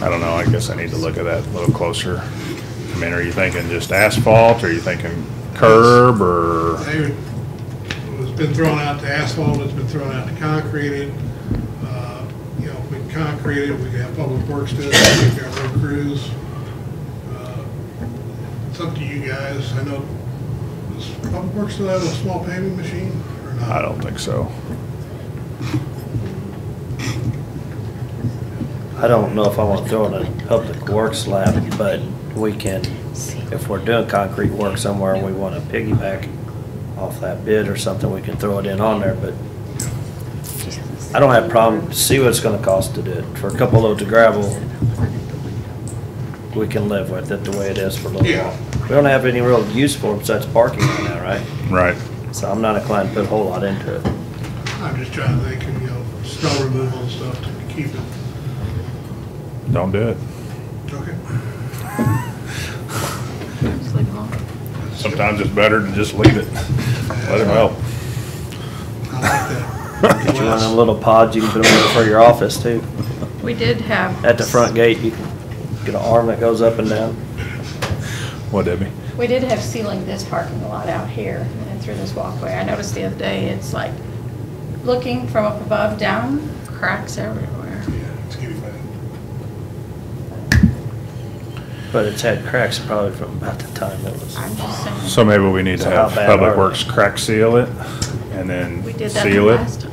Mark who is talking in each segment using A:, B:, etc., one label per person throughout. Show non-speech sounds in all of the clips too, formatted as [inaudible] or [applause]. A: I don't know, I guess I need to look at that a little closer. I mean, are you thinking just asphalt, or are you thinking curb, or?
B: They, it's been thrown out to asphalt, it's been thrown out to concreted. Uh, You know, if we concrete it, we can have public works do it, we've got road crews. Uh, It's up to you guys, I know, does public works still have a small paving machine or not?
A: I don't think so.
C: I don't know if I want to throw it in public works lap, but we can, if we're doing concrete work somewhere and we want to piggyback off that bid or something, we can throw it in on there, but I don't have a problem, see what it's gonna cost to do it. For a couple loads of gravel, we can live with it the way it is for a little
B: Yeah.
C: while. We don't have any real use for it besides parking right now, right?
A: Right.
C: So I'm not inclined to put a whole lot into it.
B: I'm just trying to think, of, you know, snow removal and stuff to keep it,
A: Don't do it.
B: okay?
A: Sometimes it's better to just leave it. Let it melt.
B: I like
C: [laughs] Get you one of them
B: that.
C: little pods, you can put them in for your office too.
D: We did have.
C: At the front gate, you can get an arm that goes up and down.
A: What, Debbie?
D: We did have ceiling this parking lot out here and through this walkway. I noticed the other day, it's like, looking from up above down, cracks everywhere.
B: Yeah, it's getting bad.
C: But it's had cracks probably from about the time it was.
D: I'm just saying.
A: So maybe we need to
C: So
A: have
C: how bad are
A: Public
C: they?
A: Works crack seal it, and then
D: We did that the
A: seal
D: last
A: it.
D: time.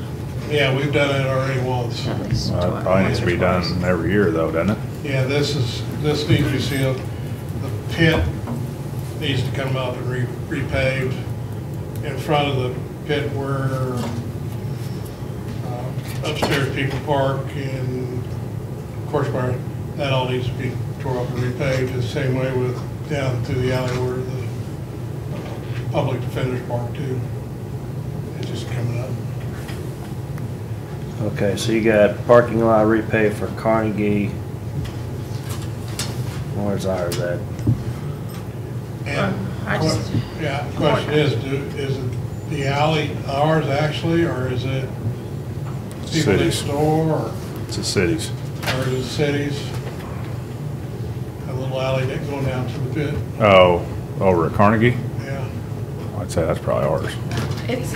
B: Yeah, we've done it already once.
D: at least
A: Well, it
D: twice.
A: Probably needs to be done every year, though, doesn't it?
B: Yeah, this is, this needs to be sealed. The pit needs to come up and re repaved. In front of the pit where uh, upstairs people park and course barn, that all needs to be tore up and repaved. The same way with down through the alley where the uh, public defenders park too. It's just coming up.
C: Okay, so you got parking lot repay for Carnegie. Where's ours at?
B: And,
D: Um, I just-
B: que- yeah, the question is, do, is it the alley ours actually, or is it people next
A: Cities.
B: door, or,
A: It's the cities.
B: or is it cities? That little alley that going down to the pit,
A: Oh, over at Carnegie?
B: yeah.
A: I'd say that's probably ours.
D: It's,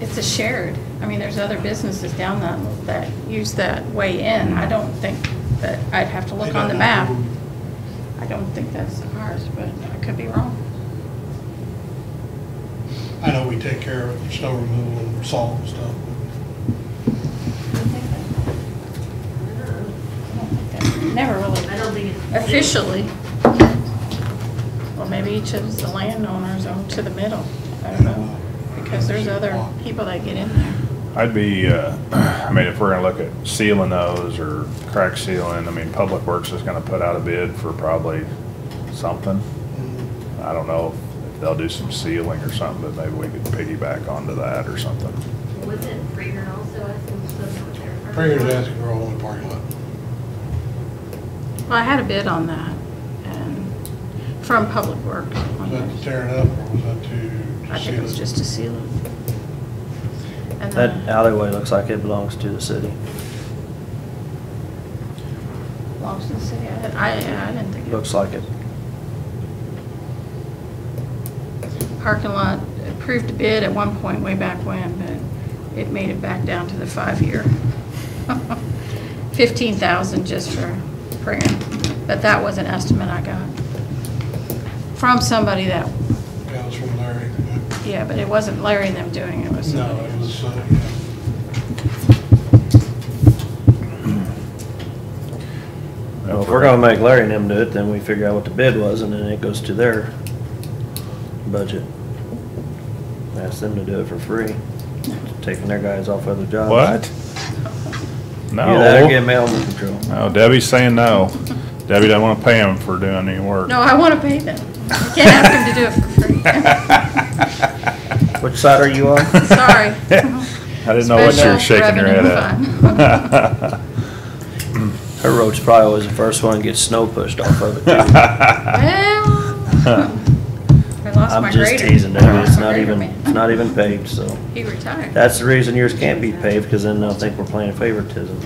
D: it's a shared, I mean, there's other businesses down that, that use that way in.
A: Mm-hmm.
D: I don't think that, I'd have to look on the map. I don't think that's ours, but I could be wrong.
B: I know we take care of snow removal and salt and stuff.
D: I don't think that- I don't think that- Never really.
E: I don't think it's.
D: Officially. Or maybe each of the landowners own to the middle. I don't know. Because there's other people that get in there.
A: I'd be, uh, [clears throat] I mean, if we're gonna look at sealing those or crack sealing, I mean, Public Works is gonna put out a bid for probably something. I don't know if they'll do some sealing or something, but maybe we could piggyback onto that or something.
E: Wasn't Prager also asking for something there? first?
B: Prager's asking for all the parking lot.
D: Well, I had a bid on that and from Public Works.
B: Was
D: on
B: that to
D: theirs.
B: tear it up, or was that to? to
D: I think it was
B: seal
D: just to seal it. And
C: That
D: then
C: alleyway looks like it belongs to the city.
D: belongs to the city. I, I I didn't think it
C: Looks like it.
D: parking lot approved a bid at one point way back when, but it made it back down to the five-year. [laughs] Fifteen thousand just for praying, but that was an estimate I got from somebody that,
B: Yeah, it was from Larry.
D: yeah, but it wasn't Larry and them doing it, it was
B: No,
D: somebody
B: it
D: else.
B: was, uh, yeah.
C: Well, if we're gonna make Larry and them do it, then we figure out what the bid was and then it goes to their budget. Ask them to do it for free, taking their guys off other jobs.
A: What?
C: Either that or Uh, get
A: No.
C: mail under control.
A: No, Debbie's saying no. Debbie doesn't wanna pay them for doing any work.
D: No, I want to pay them. You can't ask them to do it for free.
A: [laughs]
C: [laughs] Which side are you on?
D: Sorry.
A: I didn't know what you were
D: Special
A: shaking your head
D: revenue
A: at. [laughs]
C: Her road's probably always the first one to get snow pushed off of it
A: [laughs]
C: too. [laughs]
D: Well, I lost my
C: I'm just
D: grader.
C: teasing
D: I
C: that,
D: lost
C: it's
D: my [laughs]
C: not
D: grader,
C: even,
D: man.
C: it's not even paved, so.
D: He retired.
C: That's the reason yours can't be paved, because then they'll think we're playing favoritism.